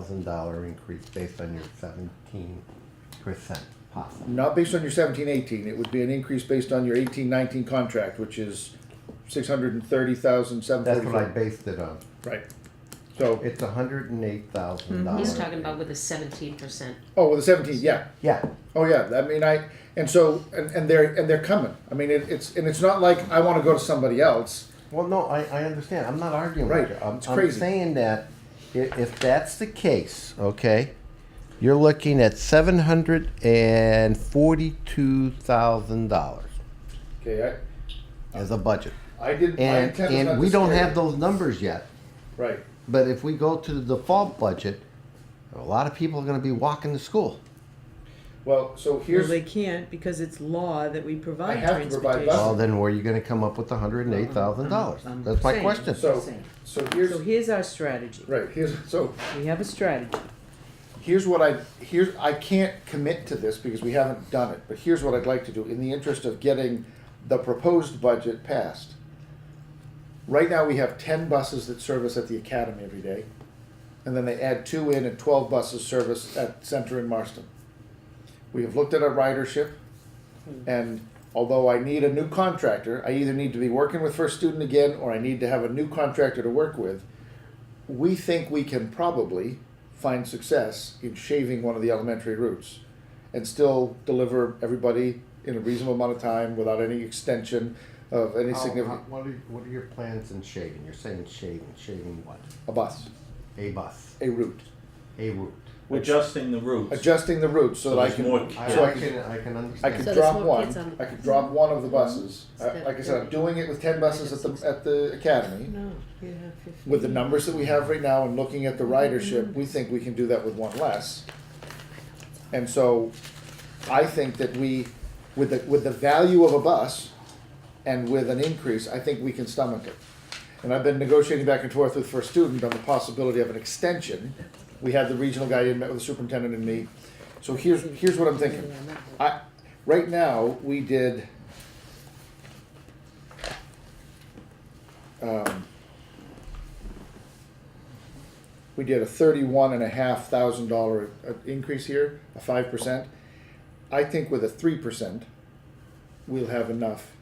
thousand dollar increase based on your seventeen percent possible. Not based on your seventeen, eighteen, it would be an increase based on your eighteen, nineteen contract, which is six hundred and thirty thousand, seven That's what I forty-four. based it on. Right. So, It's a hundred and eight thousand dollars. Mm-hmm. He's talking about with a seventeen percent. oh, well, the seventeen, yeah, Yeah, oh, yeah, I mean, I, and so, and, and they're, and they're coming. I mean, it, it's, and it's not like I wanna go to somebody else, well, no, I, I understand, I'm not arguing Right, with you. I'm, it's I'm crazy. saying that i- if that's the case, okay, you're looking at seven hundred and forty-two thousand dollars okay, as a budget. I, I did, my And, intent was not and to we don't scare have you. those numbers yet. Right, But if we go to the default budget, a lot of people are gonna be walking to school. well, so Well, here's, they can't because it's law that we provide I have to provide transportation. Well, then where are you gonna come up with hundred and eight thousand dollars? I'm That's my saying. question. so, so here's, So here's our strategy. right, here's, so, We have a strategy. here's what I here's I can't commit to this because we haven't done it, but here's what I'd like to do in the interest of getting the proposed budget passed. Right now we have ten buses that service at the academy every day. And then they add two in and twelve buses service at Center in Marston. We have looked at our ridership and although I need a new contractor, I either need to be working with First Student again or I need to have a new contractor to work with we think we can probably find success in shaving one of the elementary routes and still deliver everybody in a reasonable amount of time without any extension of Oh, any significant What are, what are your plans in shaving? You're saying shaving, shaving what? a bus A bus, a route a route. Which- adjusting the routes. adjusting the route so, So that i there's can more I, so I i can can, I can I understand. could So there's drop more one. kids on the Mm-hmm. I could drop one of the buses. I- Instead of like I said, I'm thirty. doing it with ten buses at the at the academy. No, you have fifteen. With the numbers that we have right now and looking at the ridership, we think we can do that with one less. And so, I think that we, with the with the value of a bus, and with an increase, I think we can stomach it. And I've been negotiating back and forth with First Student on the possibility of an extension. We had the regional guy in, met with the superintendent and me. So here's, here's what I'm thinking. I, right now, we did. um, We did a thirty-one and a half thousand dollar uh, increase here, a five percent. I think with a three percent, we'll have enough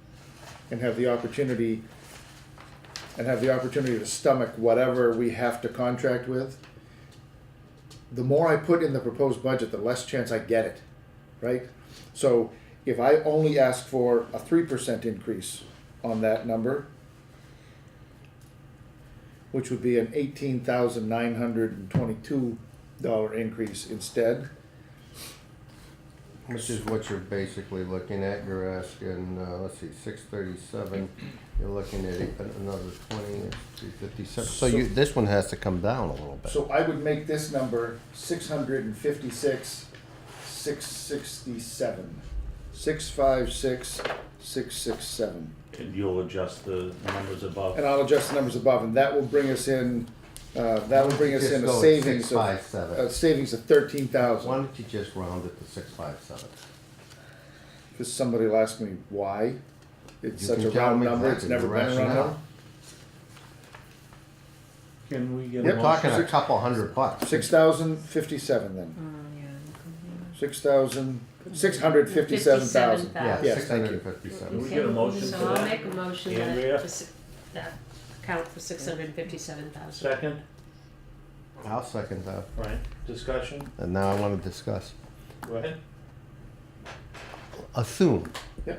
and have the opportunity and have the opportunity to stomach whatever we have to contract with. The more I put in the proposed budget, the less chance I get it, right? So if I only ask for a three percent increase on that number, which would be an eighteen thousand nine hundred and twenty-two dollar increase instead, Which is what you're basically looking at. You're asking, uh, let's see, six thirty-seven. You're looking at eight- another twenty, three fifty-seven. So you, this one has to come down a little bit. So I would make this number six hundred and fifty-six, six sixty-seven. Six five six, six six seven. And you'll adjust the numbers And above. I'll adjust the numbers above, and that will bring us in, uh, that will bring us in Just a go at savings of, 657. a savings of thirteen Why thousand. don't you just round it to six five seven? Cause somebody will ask me why. It's You such can a tell round them number, it's exactly never the been a round rationale. number. Can we Yep. get a We're Well, talking a six- couple hundred bucks. Six thousand fifty-seven then. Six thousand, six hundred Mm. fifty-seven thousand. Yeah, Yes, six thank hundred you. and fifty-seven. Can we get a motion So for I'll that? make a motion that, Andrea? to s- that account for six hundred and fifty-seven thousand. Second, I'll second that. right, discussion, And now I want to discuss. go ahead. Assume Yeah,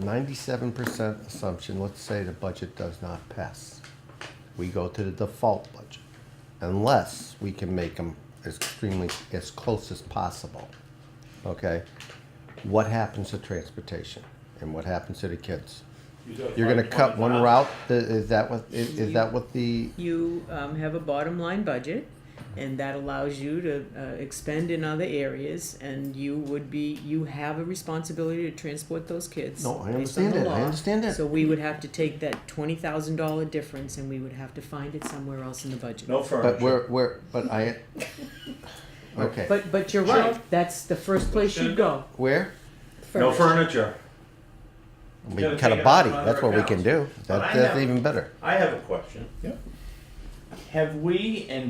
ninety-seven percent assumption, let's say the budget does not pass. We go to the default budget, unless we can make them extremely, as close as possible. Okay? What happens to transportation and what happens to the kids? You're gonna cut one route, Th- is that what, is, is that what the, You um, have a bottom line budget, and that allows you to uh, expend in other areas, and you would be, you have a responsibility to transport those kids. No, I based on understand the that. I law. understand that. So we would have to take that twenty thousand dollar difference, and we would have to find it somewhere else in the budget. No but furniture. we're, we're, but I, okay, But, but you're right, that's the first place you go. where? No furniture. We Gotta can cut take a it out body, of that's what we can accounts. do, But I that, that's have- even better. I have a question. yeah. Have we and